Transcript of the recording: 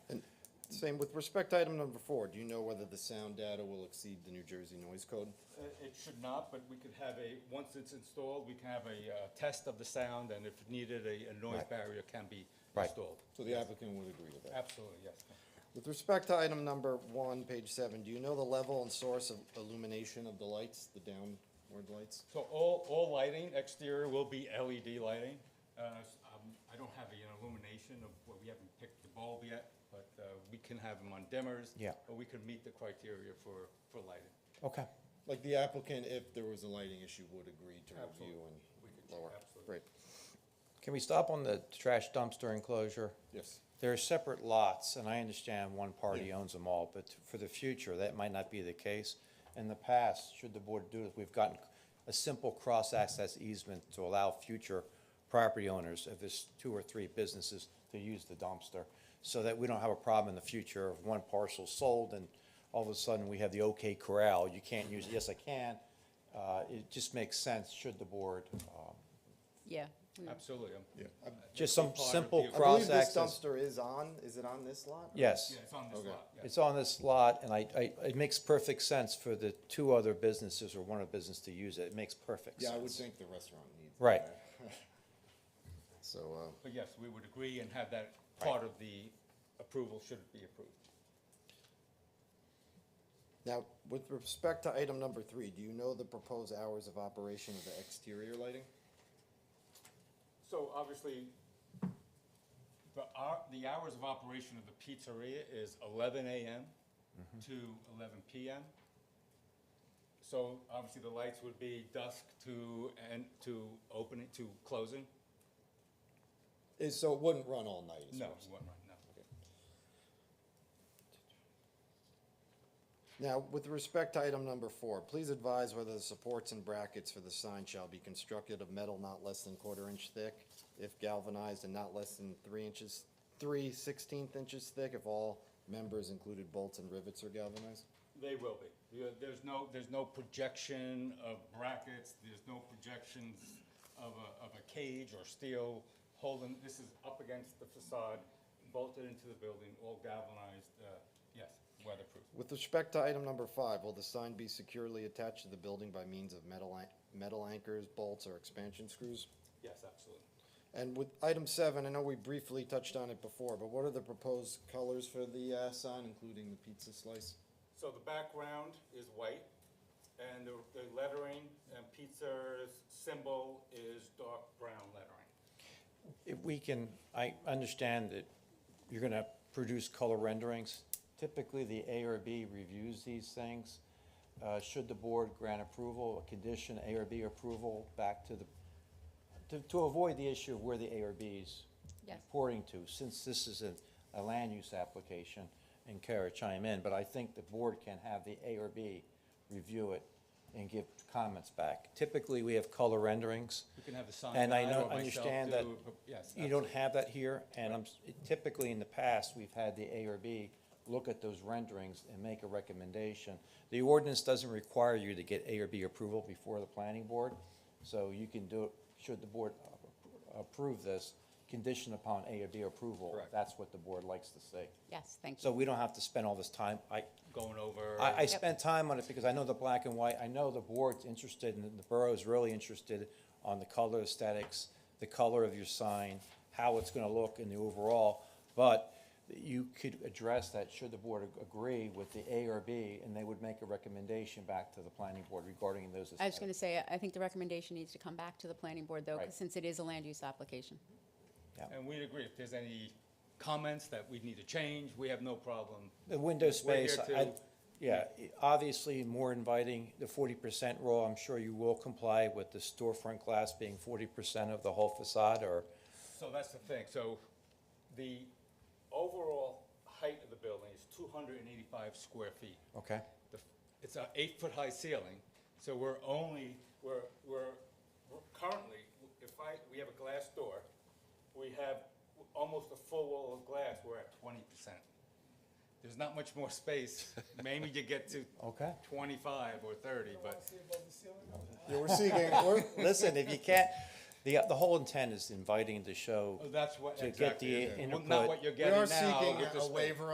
Same with respect to item number four, do you know whether the sound data will exceed the New Jersey noise code? Uh, It should not, but we could have a, once it's installed, we can have a uh, test of the sound, and if needed, a a noise Right. barrier can be Right. installed. So the applicant would agree with that. Absolutely, yes. With respect to item number one, page seven, do you know the level and source of illumination of the lights, the downward lights? So all, all lighting exterior will be LED lighting. Uh, s- um, I don't have an illumination of, well, we haven't picked the bulb yet, but uh, we can have them on dimmers. Yeah. Or we can meet the criteria for, for lighting. Okay, Like the applicant, if there was a lighting issue, would agree to review We could and do- lower. absolutely. Great, can we stop on the trash dumpster enclosure? yes. There are separate lots, and I understand one party Yeah. owns them all, but for the future, that might not be the case. In the past, should the board do it, we've gotten a simple cross-access easement to allow future property owners, if there's two or three businesses, to use the dumpster, so that we don't have a problem in the future of one parcel sold and all of a sudden we have the OK Corral, you can't use it, yes, I can. Uh, It just makes sense, should the board, um, Yeah. we- Absolutely. um, Yeah. uh, that'd Just some be part of simple the- I believe this Cross-access. dumpster is on, is it on this lot? yes. Yeah, it's on this Okay. lot, yes. It's on this lot, and I, I, it makes perfect sense for the two other businesses or one of the business to use it. It makes perfect sense. Yeah, I would think the restaurant needs. it. Right. So, uh, But yes, we would agree and have that part of the approval should it be approved. now, with respect to item number three, do you know the proposed hours of operation of the exterior lighting? So obviously, the, hou- the hours of operation of the pizzeria is eleven AM to eleven PM. So obviously, the lights would be dusk to, and to opening, to closing? Is, so it wouldn't run all night? is No, what I'm saying. one, right, no. Now, with respect to item number four, please advise whether the supports and brackets for the sign shall be constructed of metal not less than quarter inch thick, if galvanized and not less than three inches, three sixteenth inches thick, if all members included bolts and rivets are galvanized? They will be. There- There's no, there's no projection of brackets, there's no projections of a, of a cage or steel holding, this is up against the facade, bolted into the building, all galvanized, uh, yes, weatherproof. With respect to item number five, will the sign be securely attached to the building by means of metal, an- metal anchors, bolts, or expansion screws? Yes, absolutely. And with item seven, I know we briefly touched on it before, but what are the proposed colors for the, uh, sign, including the pizza slice? So the background is white, and the the lettering and pizza's symbol is dark brown lettering. If we can, I understand that you're gonna produce color renderings. Typically, the A or B reviews these things. Uh, should the board grant approval, a condition A or B approval back to the, to, to avoid the issue of where the A or B's Yes. reporting to, since this is a, a land use application, and Kara chime in, but I think the board can have the A or B review it and give comments back. Typically, we have color renderings. We can have the sign And I guy know, or myself understand that do a pro- yes, you don't have that here, and I'm, s- typically in the past, we've had the A or B look at those renderings and make a recommendation. The ordinance doesn't require you to get A or B approval before the planning board, so you can do it, should the board appro- approve this, conditioned upon A or B approval. Correct. That's what the board likes to see. Yes, thank So you. we don't have to spend all this time, I, Going over. I, I spent time on it because I know the black and white, I know the board's interested, and the borough's really interested on the color aesthetics, the color of your sign, how it's gonna look in the overall, but you could address that should the board ag- agree with the A or B, and they would make a recommendation back to the planning board regarding those I was going to aesthetics. say, I- I think the recommendation needs to come back to the planning board, though, 'cause Right. since it is a land use application. And we'd agree, if there's any comments that we need to change, we have no problem. The window space, here I, to- yeah, i- obviously more inviting, the forty percent rule, I'm sure you will comply with the storefront glass being forty percent of the whole facade, or So that's the thing, so the overall height of the building is two hundred and eighty-five square feet. Okay. The f- It's an eight-foot-high ceiling, so we're only, we're, we're, we're currently, if I, we have a glass door, we have almost a full wall of glass, we're at twenty percent. There's not much more space, maybe you get to Okay. twenty-five or thirty, but Yeah, we're seeking, we're, Listen, if you can't, the, the whole intent is inviting to show that's what, To exactly. get the Well, Not input. what you're we are getting now seeking with the a space. waiver